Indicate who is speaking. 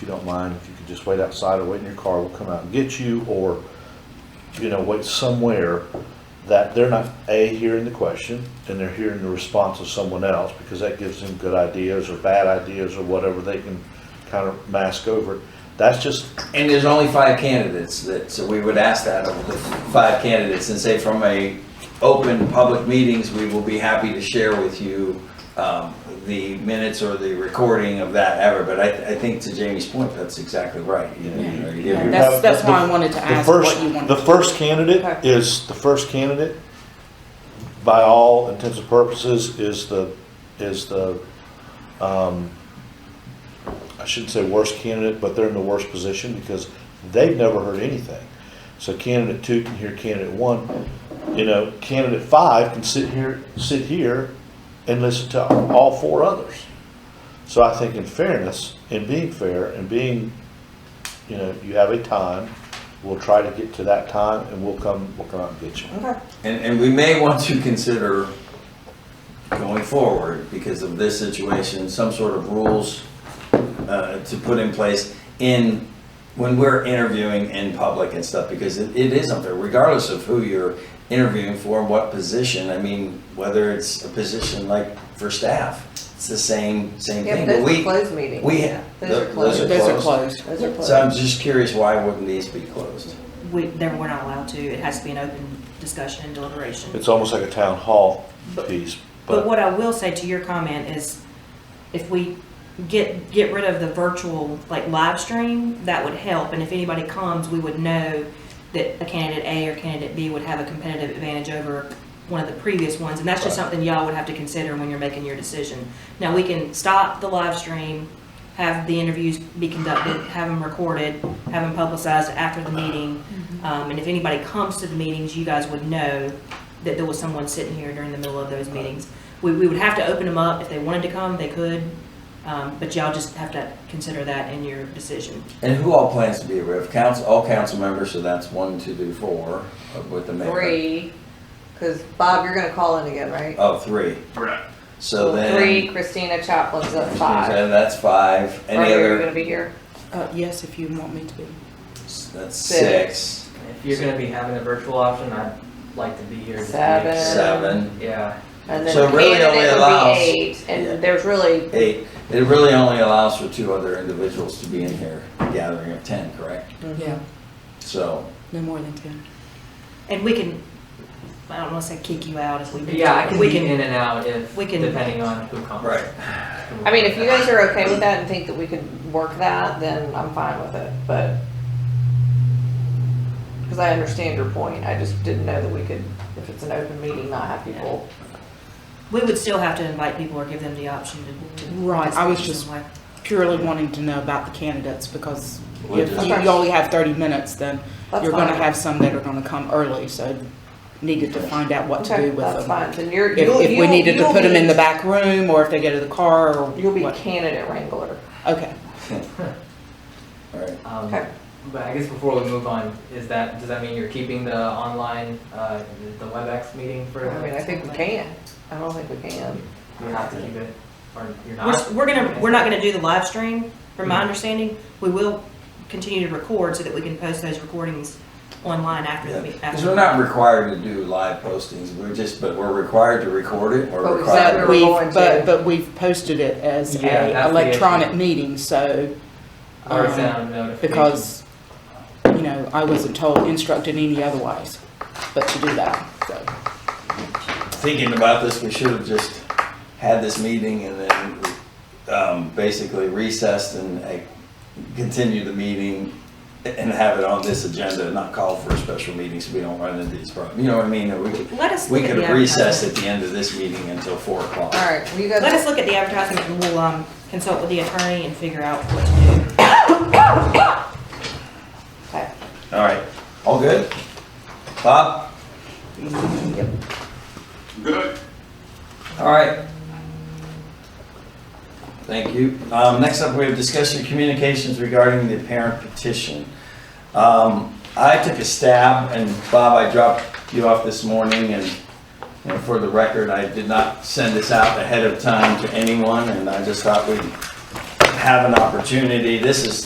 Speaker 1: you don't mind, if you could just wait outside or wait in your car, we'll come out and get you, or, you know, wait somewhere that they're not, A, hearing the question, and they're hearing the response of someone else, because that gives them good ideas or bad ideas or whatever they can kind of mask over. That's just,
Speaker 2: And there's only five candidates that, so we would ask that of the five candidates and say from a open public meetings, we will be happy to share with you um, the minutes or the recording of that ever, but I, I think to Jamie's point, that's exactly right. You know, you know, you give
Speaker 1: Yeah.
Speaker 2: your-
Speaker 1: have-
Speaker 3: That's, that's
Speaker 1: the-
Speaker 3: why I wanted to
Speaker 1: The
Speaker 3: ask what you
Speaker 1: first,
Speaker 3: wanted.
Speaker 1: the first candidate
Speaker 3: Okay.
Speaker 1: is, the first candidate, by all intents and purposes, is the, is the, um, I shouldn't say worst candidate, but they're in the worst position because they've never heard anything. So candidate two can hear candidate one, you know, candidate five can sit here, sit here and listen to all four others. So I think in fairness, in being fair, and being you know, you have a time, we'll try to get to that time and we'll come, we'll come out and get you.
Speaker 3: Okay.
Speaker 2: And, and we may want to consider going forward because of this situation, some sort of rules uh, to put in place in, when we're interviewing in public and stuff, because it, it is unfair, regardless of who you're interviewing for, and what position, I mean, whether it's a position like for staff, it's the same, same
Speaker 4: Yeah,
Speaker 2: thing.
Speaker 4: but
Speaker 2: But
Speaker 4: those
Speaker 2: we-
Speaker 4: are closed meetings.
Speaker 2: we-
Speaker 4: Yeah,
Speaker 2: th-
Speaker 4: Those are
Speaker 2: those
Speaker 4: closed.
Speaker 3: Those are closed.
Speaker 4: Those are
Speaker 2: So I'm
Speaker 4: closed.
Speaker 2: just curious, why wouldn't these be closed?
Speaker 5: We, then we're not allowed to, it has to be an open discussion and deliberation.
Speaker 1: It's almost like a town hall piece,
Speaker 5: But
Speaker 1: but
Speaker 5: what I will say to your comment is, if we get, get rid of the virtual, like, live stream, that would help, and if anybody comes, we would know that a candidate A or candidate B would have a competitive advantage over one of the previous ones, and that's just
Speaker 2: Right.
Speaker 5: something y'all would have to consider when you're making your decision. Now, we can stop the live stream, have the interviews be conducted, have them recorded, have them publicized after the meeting,
Speaker 3: Mm-hmm.
Speaker 5: um, and if anybody comes to the meetings, you guys would know that there was someone sitting here during the middle of those meetings. We, we would have to open them up, if they wanted to come, they could, um, but y'all just have to consider that in your decision.
Speaker 2: And who all plans to be a ref? Council, all council members, so that's one, two, three, four, uh, with the mayor.
Speaker 4: Three, because Bob, you're gonna call in again, right?
Speaker 2: Oh, three.
Speaker 6: Correct.
Speaker 2: So then.
Speaker 4: Three, Christina Chaplin's at five.
Speaker 2: And that's five. Any
Speaker 4: Are you gonna
Speaker 2: other?
Speaker 4: be here?
Speaker 3: Uh, yes, if you want me to be.
Speaker 2: That's
Speaker 4: Six.
Speaker 2: six,
Speaker 6: If you're gonna be having a virtual option, I'd like to be here. just to make sure.
Speaker 2: seven,
Speaker 6: Yeah.
Speaker 4: And then
Speaker 2: So it really only
Speaker 4: candidate would
Speaker 2: allows-
Speaker 4: be eight,
Speaker 2: Yeah.
Speaker 4: and there's really,
Speaker 2: eight. It really only allows for two other individuals to be in here, a gathering of ten, correct?
Speaker 3: Yeah,
Speaker 2: So,
Speaker 3: no more than ten.
Speaker 5: And we can, I don't wanna say kick you out if we. need
Speaker 6: Yeah, I
Speaker 5: to.
Speaker 6: can
Speaker 5: We
Speaker 6: be in and out if,
Speaker 5: we can-
Speaker 6: depending on who comes.
Speaker 2: right.
Speaker 4: I mean, if you guys are okay with that and think that we could work that, then I'm fine with it, but. Because I understand your point, I just didn't know that we could, if it's an open meeting, not have people.
Speaker 5: We would still have to invite people or give them the option to. to
Speaker 3: Right, I was
Speaker 5: participate
Speaker 3: just-
Speaker 5: some way.
Speaker 3: Purely wanting to know about the candidates because
Speaker 2: We'll
Speaker 3: if
Speaker 2: just-
Speaker 3: you you only have thirty minutes, then
Speaker 4: That's
Speaker 3: you're gonna
Speaker 4: fine.
Speaker 3: have some that are gonna come early, so needed to find out what to
Speaker 4: Okay,
Speaker 3: do with
Speaker 4: That's
Speaker 3: them.
Speaker 4: fine, then you're.
Speaker 3: If,
Speaker 4: you'll-
Speaker 3: if we
Speaker 4: you'll-
Speaker 3: needed to
Speaker 4: you'll
Speaker 3: put them in
Speaker 4: be-
Speaker 3: the back room or if they go to the car or
Speaker 4: You'll be
Speaker 3: what.
Speaker 4: candidate wrangler.
Speaker 3: Okay,
Speaker 2: All right.
Speaker 6: Um,
Speaker 4: Okay.
Speaker 6: But I guess before we move on, is that, does that mean you're keeping the online, uh, the WebEx meeting for?
Speaker 4: I mean, I think we can. I don't think we can.
Speaker 6: You have to keep it, or you're
Speaker 5: We're, s-
Speaker 6: not?
Speaker 5: we're gonna, we're not gonna do the live stream, from my understanding, we will continue to record so that we can post those recordings online after the. meet-
Speaker 2: Because
Speaker 5: after
Speaker 2: we're
Speaker 5: the-
Speaker 2: not required to do live postings, we're just, but we're required to record it,
Speaker 4: But
Speaker 2: or
Speaker 4: we
Speaker 2: required.
Speaker 4: said
Speaker 2: to-
Speaker 3: but
Speaker 4: we were
Speaker 3: we've,
Speaker 4: going
Speaker 3: but,
Speaker 4: to-
Speaker 3: but we've posted it as
Speaker 6: Yeah, that's
Speaker 3: a
Speaker 6: the
Speaker 3: electronic
Speaker 6: issue.
Speaker 3: meeting, so.
Speaker 6: Or
Speaker 3: um,
Speaker 6: send out a notification?
Speaker 3: because, you know, I wasn't told, instructed any otherwise, but to do that, so.
Speaker 2: thinking about this, we should have just had this meeting and then um, basically recessed and uh, continued the meeting and have it on this agenda, not call for a special meeting so we don't run into these problems. You know what I mean? We could,
Speaker 5: Let us
Speaker 2: we
Speaker 5: look at
Speaker 2: could
Speaker 5: the
Speaker 2: have recessed
Speaker 5: advertisement.
Speaker 2: at the end of this meeting until four o'clock.
Speaker 4: All right, well, you guys.
Speaker 5: Let us look at the advertisement and we'll, um, consult with the attorney and figure out what to do.
Speaker 4: Okay.
Speaker 2: All right. All good? Bob?
Speaker 7: Good.
Speaker 2: All right. Thank you. Um, next up, we have discussion communications regarding the parent petition. Um, I took a stab, and Bob, I dropped you off this morning, and, and for the record, I did not send this out ahead of time to anyone, and I just thought we'd have an opportunity. This is